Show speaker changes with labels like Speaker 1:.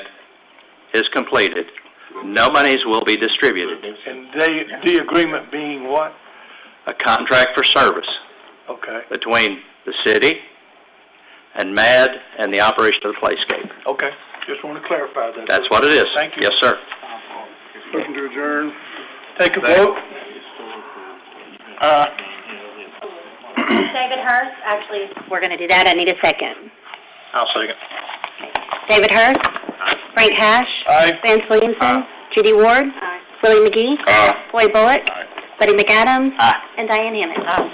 Speaker 1: is completed, no monies will be distributed.
Speaker 2: And they, the agreement being what?
Speaker 1: A contract for service
Speaker 2: Okay,
Speaker 1: between the city and MAD and the operation of the playscape.
Speaker 2: okay, just want to clarify that.
Speaker 1: That's what it is.
Speaker 2: Thank you.
Speaker 1: Yes, sir.
Speaker 2: Looking to adjourn. Take a vote. Uh,
Speaker 3: David Hurst, actually, we're going to do that, I need a second.
Speaker 2: I'll second.
Speaker 3: David Hurst? Frank Hash?
Speaker 2: Aye.
Speaker 3: Vance Williamson? Judy Ward? Willie McGee? Roy Bullock? Buddy McAdams? And Diane Hammond?